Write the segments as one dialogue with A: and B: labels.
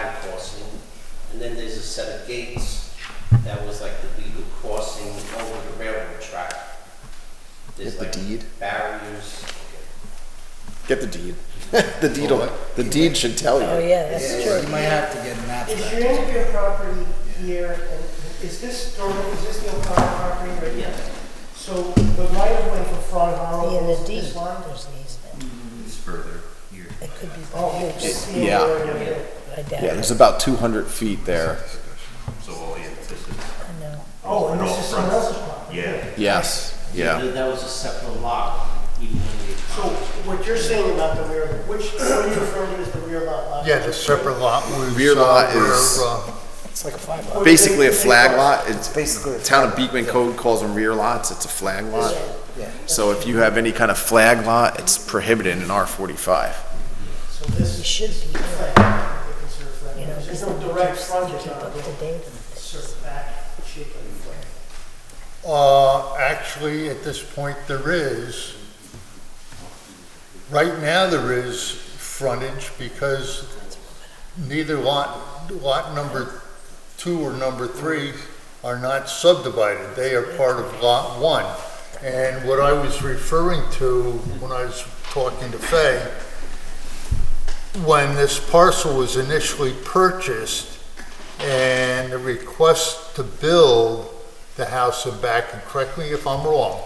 A: crossing. And then there's a set of gates that was like the legal crossing over the railroad track. There's
B: Get the
A: like
B: deed.
A: barriers.
B: Get the deed. the deed. will the deed should tell you.
C: Oh, yeah, that's
D: Yeah,
C: true.
D: You might have to get maps
E: Is
D: back.
E: your Andrea property here, and is this Dorman, is this the O'Connor property right here? So the right of way for Frog Hollow
C: In the
E: is
C: deed,
E: this line?
C: there's an easement.
F: Mm, It's further here.
C: It could be by
E: Oh,
C: you,
E: it's the
B: yeah.
E: other way down.
C: I doubt
B: Yeah,
C: it.
B: there's about 200 feet there.
F: So, oh, yeah, this is,
C: I know.
E: Oh, and
F: No,
E: this is
F: front.
E: someone else's property?
F: yeah,
B: Yes. Yeah.
A: That was a separate lot, even when they.
E: So what you're saying about the rear, which, what are you referring to as the rear lot? lot?
G: Yeah, the separate lot. we
B: Rear
G: saw
B: lot
G: where,
B: is-
G: uh,
B: It's like a flag
E: Or
B: Basically a
E: they-
B: flag lot. It's
D: basically a
B: town of Beekman Code calls them rear lots. It's a flag lot.
D: Yeah.
B: So if you have any kind of flag lot, it's prohibited in R45.
E: So this
C: You
E: is
C: should be,
E: flag, they consider flag.
C: you know,
E: There's
C: because
E: no direct
C: you
E: frontage
C: keep
E: on
C: up
E: the
C: to date on
E: sort
C: things.
E: of back shape of the flag.
G: Uh, actually, at this point, there is. Right now, there is frontage because neither lot, lot number two or number three are not subdivided. They are part of lot one. And what I was referring to when I was talking to Fay, when this parcel was initially purchased and the request to build the house and back, and correct me if I'm wrong,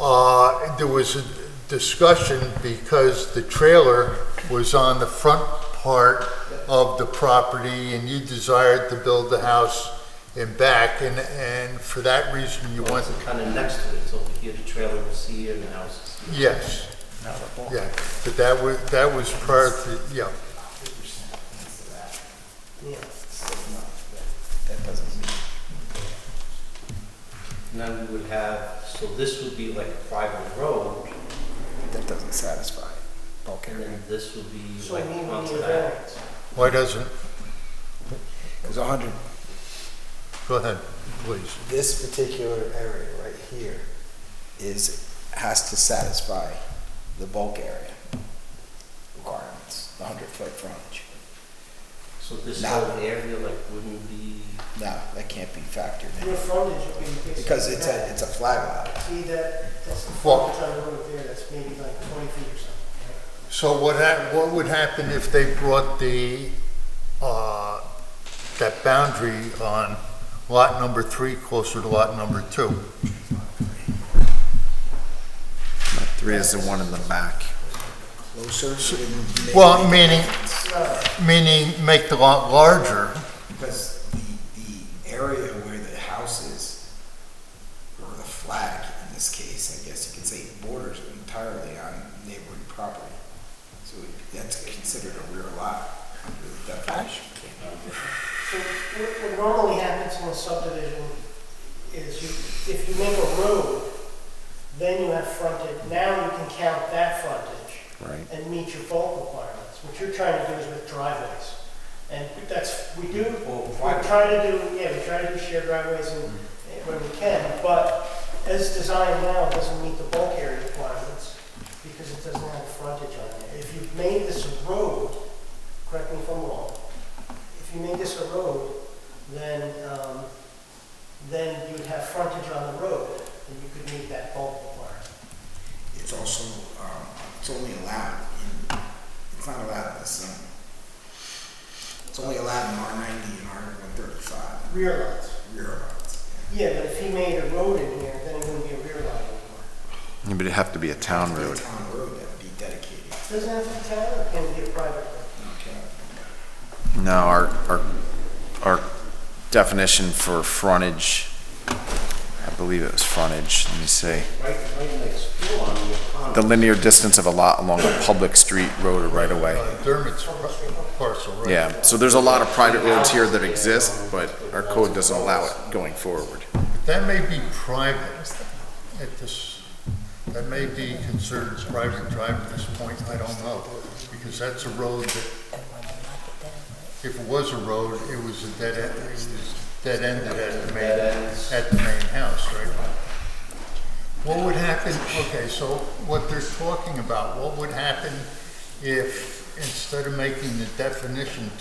G: uh, there was a discussion because the trailer was on the front part of the property and you desired to build the house in back and, and for that reason you wanted,
A: It's kind of next to it, so over here, the trailer was here and the house is here.
G: yes. Yeah, but that was, that was prior to, yeah.
A: And then we would have, so this would be like a private road,
D: That doesn't satisfy bulk
A: and
D: area.
A: then this would be
E: So I
A: like
E: mean, we need
A: onto
E: a
A: that.
E: variance.
G: Why doesn't,
D: Because 100,
G: go ahead, please.
D: this particular area right here is, has to satisfy the bulk area requirements, the 100-foot frontage.
A: So this
D: Now-
A: whole area like wouldn't be,
D: No, that can't be factored
E: Your
D: in.
E: frontage would be. basically
D: Because it's
E: that.
D: a, it's a flag lot.
E: See that, that's the
G: Well-
E: frontage on the road there, that's maybe like twenty feet or something. right?
G: So what hap, what would happen if they brought the, uh, that boundary on lot number three closer to lot number two?
B: Three is the one in the back.
D: Closer wouldn't make
G: Well,
D: any
G: meaning-
D: difference.
G: Meaning make the lot larger,
D: Because the, the area where the house is, or the flag in this case, I guess you could say borders entirely on neighboring property. So it- that's considered a rear lot under the definition.
E: So what what normally happens in a subdivision is you, if you make a road, then you have frontage, now you can count that frontage.
B: Right.
E: And meet your bulk requirements. What you're trying to do is with driveways. And that's, we do,
A: Or
E: we
A: driveway.
E: try to do, yeah, we try to do shared driveways and when we can, but as designed now, it doesn't meet the bulk area requirements because it doesn't have frontage on it. If you've made this a road, correct me if I'm wrong, if you made this a road, then, um, then you would have frontage on the road, and you could meet that bulk requirement.
D: It's also, um, it's only allowed in, it's not allowed in the zone. It's only allowed in R ninety and R one thirty-five,
E: Rear lots.
D: rear lots.
E: Yeah, but if he made a road in here, then it wouldn't be a rear lot anymore.
B: Yeah, But it'd have to be a town
D: It'd be a
B: road.
D: town road that would be dedicated.
E: Doesn't have to be town, it can be a private road.
D: Okay.
B: No, our, our, our definition for frontage, I believe it was frontage, let me see.
A: right, right next door on the pond.
B: The linear distance of a lot along a public street, road, or right of way.
G: uh, Dermot's parcel, right?
B: Yeah, so there's a lot of private roads here that exist, but our code doesn't allow it going forward.
G: That may be private at this, that may be considered as private drive at this point, I don't know. Because that's a road that,
C: Everyone will knock it down, right?
G: if it was a road, it was a dead end, it was dead ended at the main,
A: Dead ends.
G: at the main house, right? What would happen, okay, so what they're talking about, what would happen if, instead of making the definition